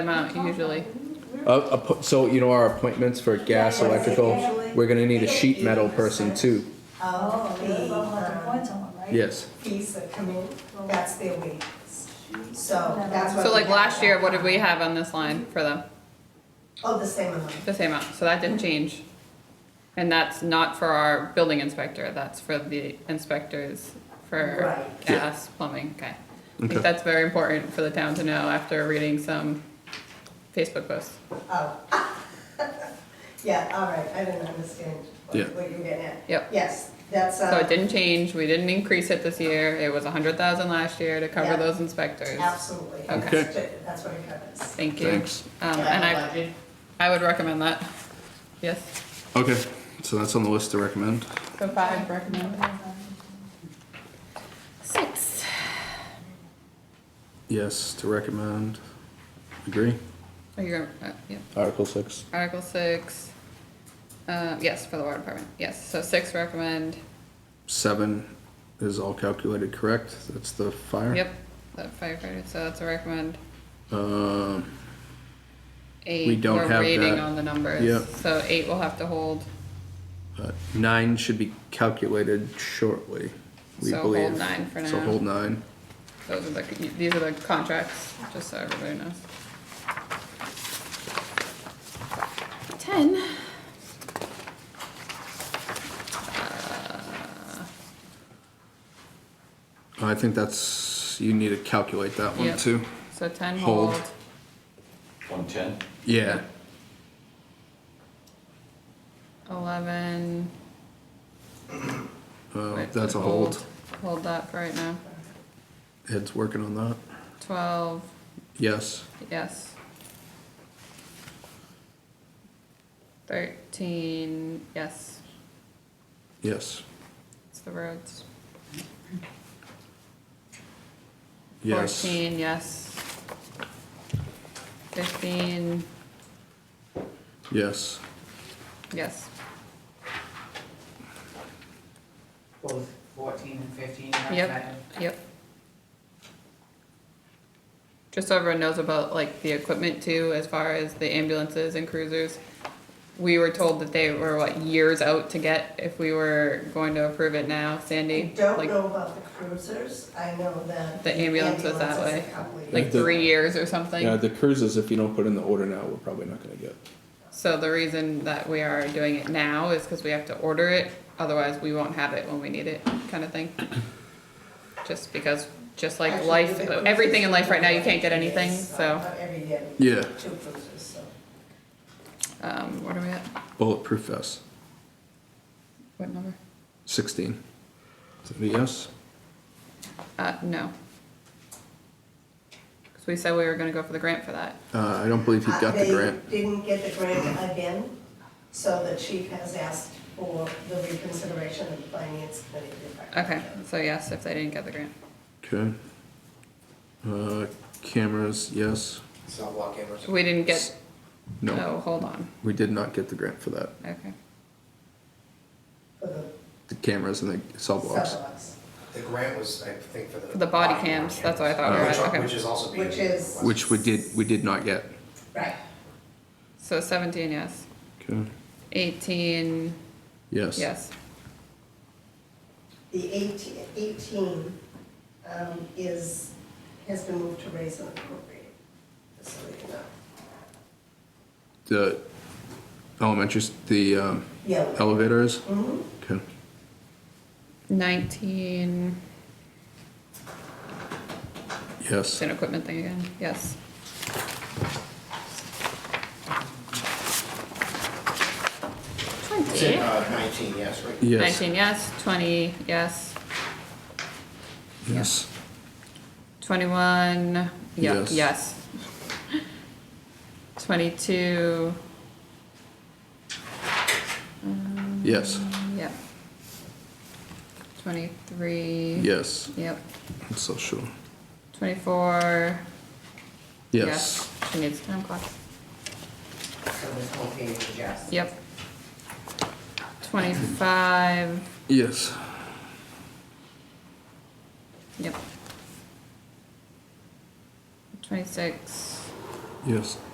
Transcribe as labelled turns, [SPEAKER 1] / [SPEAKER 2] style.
[SPEAKER 1] amount usually.
[SPEAKER 2] Uh, appo- So, you know, our appointments for gas, electrical, we're gonna need a sheet metal person too.
[SPEAKER 3] Oh, they, um,
[SPEAKER 2] Yes.
[SPEAKER 3] fees that come in, that's their wages. So that's what.
[SPEAKER 1] So
[SPEAKER 3] we
[SPEAKER 1] like
[SPEAKER 3] have.
[SPEAKER 1] last year, what did we have on this line for them?
[SPEAKER 3] Oh, the same amount.
[SPEAKER 1] The same amount, so that didn't
[SPEAKER 3] Mm-hmm.
[SPEAKER 1] change. And that's not for our building inspector, that's for the inspectors for
[SPEAKER 3] Right.
[SPEAKER 2] Yeah.
[SPEAKER 1] gas, plumbing, okay. I
[SPEAKER 2] Okay.
[SPEAKER 1] think that's very important for the town to know after reading some Facebook posts.
[SPEAKER 3] Oh. Yeah, all right, I didn't understand what
[SPEAKER 2] Yeah.
[SPEAKER 3] what you were getting at.
[SPEAKER 1] Yep.
[SPEAKER 3] Yes, that's,
[SPEAKER 1] So it
[SPEAKER 3] uh,
[SPEAKER 1] didn't change, we didn't increase it this year, it was a hundred thousand last year to cover
[SPEAKER 3] Yeah.
[SPEAKER 1] those inspectors.
[SPEAKER 3] absolutely.
[SPEAKER 1] Okay.
[SPEAKER 2] Okay.
[SPEAKER 3] That's what it covers.
[SPEAKER 1] Thank you.
[SPEAKER 2] Thanks.
[SPEAKER 1] Um, and I, I would recommend that, yes,
[SPEAKER 2] Okay, so that's on the list to recommend.
[SPEAKER 1] so five recommend. Six.
[SPEAKER 2] Yes, to recommend. Agree.
[SPEAKER 1] Are you, gonna- uh, yeah.
[SPEAKER 2] Article six.
[SPEAKER 1] Article six, uh, yes, for the water department, yes, so six recommend,
[SPEAKER 2] Seven is all calculated correct. That's the fire.
[SPEAKER 1] yep, the firefighter, so that's a recommend.
[SPEAKER 2] Um,
[SPEAKER 1] Eight,
[SPEAKER 2] We don't have
[SPEAKER 1] we're waiting
[SPEAKER 2] that.
[SPEAKER 1] on the numbers.
[SPEAKER 2] Yep.
[SPEAKER 1] So eight will have to hold,
[SPEAKER 2] uh, nine should be calculated shortly, we
[SPEAKER 1] So hold
[SPEAKER 2] believe.
[SPEAKER 1] nine for
[SPEAKER 2] So
[SPEAKER 1] now.
[SPEAKER 2] hold nine.
[SPEAKER 1] those are the, these are the contracts, just so everybody knows. Ten. Uh,
[SPEAKER 2] I think that's, you need to calculate that one
[SPEAKER 1] Yep.
[SPEAKER 2] too.
[SPEAKER 1] So ten
[SPEAKER 2] Hold.
[SPEAKER 1] hold,
[SPEAKER 4] One ten?
[SPEAKER 2] Yeah,
[SPEAKER 1] eleven.
[SPEAKER 2] uh,
[SPEAKER 1] wait,
[SPEAKER 2] that's a hold.
[SPEAKER 1] Hold that for right now,
[SPEAKER 2] Ed's working on that.
[SPEAKER 1] twelve,
[SPEAKER 2] Yes.
[SPEAKER 1] Yes. Thirteen, yes,
[SPEAKER 2] Yes.
[SPEAKER 1] it's the roads.
[SPEAKER 2] Yes.
[SPEAKER 1] Fourteen, yes. Fifteen,
[SPEAKER 2] Yes.
[SPEAKER 1] yes,
[SPEAKER 5] both fourteen and fifteen are
[SPEAKER 1] Yep.
[SPEAKER 5] tied.
[SPEAKER 1] yep. Just so everyone knows about like the equipment too, as far as the ambulances and cruisers. We were told that they were what, years out to get if we were going to approve it now,
[SPEAKER 3] I
[SPEAKER 1] Sandy?
[SPEAKER 3] don't
[SPEAKER 1] Like,
[SPEAKER 3] know about the cruisers, I know that.
[SPEAKER 1] The ambulance was that
[SPEAKER 3] ambulance is
[SPEAKER 1] way.
[SPEAKER 3] a couple of
[SPEAKER 1] Like
[SPEAKER 2] The-
[SPEAKER 1] three years or something?
[SPEAKER 2] Yeah, the cruises, if you don't put in the order now, we're probably not gonna get.
[SPEAKER 1] So the reason that we are doing it now is because we have to order it, otherwise we won't have it when we need it, kind of thing. Just because, just like
[SPEAKER 3] Actually,
[SPEAKER 1] life,
[SPEAKER 3] with the
[SPEAKER 1] everything in life right now, you
[SPEAKER 3] cruisers,
[SPEAKER 1] can't get anything,
[SPEAKER 3] yes,
[SPEAKER 1] so,
[SPEAKER 3] uh, Every year. we
[SPEAKER 2] Yeah.
[SPEAKER 3] get Two cruisers, so.
[SPEAKER 1] um, what are we at?
[SPEAKER 2] Bulletproof vest,
[SPEAKER 1] What number?
[SPEAKER 2] sixteen. Is that a yes?
[SPEAKER 1] Uh, no. Cause we said we were gonna go for the grant for that.
[SPEAKER 2] Uh, I don't believe he
[SPEAKER 3] Uh,
[SPEAKER 2] got the grant.
[SPEAKER 3] They didn't get the grant again, so the chief has asked for the reconsideration of the finance committee. to back out.
[SPEAKER 1] Okay, so yes, if they didn't get the grant.
[SPEAKER 2] Okay. Uh, cameras, yes.
[SPEAKER 6] It's not wall cameras.
[SPEAKER 1] We didn't get,
[SPEAKER 2] No,
[SPEAKER 1] no, hold on,
[SPEAKER 2] we did not get the grant for that.
[SPEAKER 1] okay.
[SPEAKER 3] For the
[SPEAKER 2] The cameras and the cell blocks.
[SPEAKER 3] sidewalks,
[SPEAKER 6] The grant was, I think, for the.
[SPEAKER 1] For the body
[SPEAKER 6] body
[SPEAKER 1] cams,
[SPEAKER 6] cam.
[SPEAKER 1] that's what I thought we were
[SPEAKER 6] Which-
[SPEAKER 1] at, okay.
[SPEAKER 6] Which is also being.
[SPEAKER 3] Which is-
[SPEAKER 2] Which we did, we did not get.
[SPEAKER 3] right.
[SPEAKER 1] So seventeen, yes.
[SPEAKER 2] Okay.
[SPEAKER 1] Eighteen,
[SPEAKER 2] Yes.
[SPEAKER 1] yes.
[SPEAKER 3] The eighteen, eighteen, um, is, has been moved to raise and appropriate, just so you know.
[SPEAKER 2] The elementary, s- the, um,
[SPEAKER 3] Yeah,
[SPEAKER 2] elevators,
[SPEAKER 3] mhm,
[SPEAKER 2] okay.
[SPEAKER 1] Nineteen, it's
[SPEAKER 2] Yes.
[SPEAKER 1] an equipment thing again, yes.
[SPEAKER 6] It's
[SPEAKER 1] Twenty.
[SPEAKER 6] in, uh, nineteen, yes, right?
[SPEAKER 2] Yes.
[SPEAKER 1] Nineteen, yes, twenty, yes,
[SPEAKER 2] Yes.
[SPEAKER 1] twenty-one, yeah,
[SPEAKER 2] Yes.
[SPEAKER 1] yes. Twenty-two,
[SPEAKER 2] Yes.
[SPEAKER 1] Um, yep. Twenty-three.
[SPEAKER 2] Yes.
[SPEAKER 1] Yep,
[SPEAKER 2] I'm so sure.
[SPEAKER 1] twenty-four.
[SPEAKER 2] Yes.
[SPEAKER 1] She needs a time clock.
[SPEAKER 5] so this whole page adjusts.
[SPEAKER 1] Yep. Twenty-five,
[SPEAKER 2] Yes.
[SPEAKER 1] yep. Twenty-six,
[SPEAKER 2] Yes.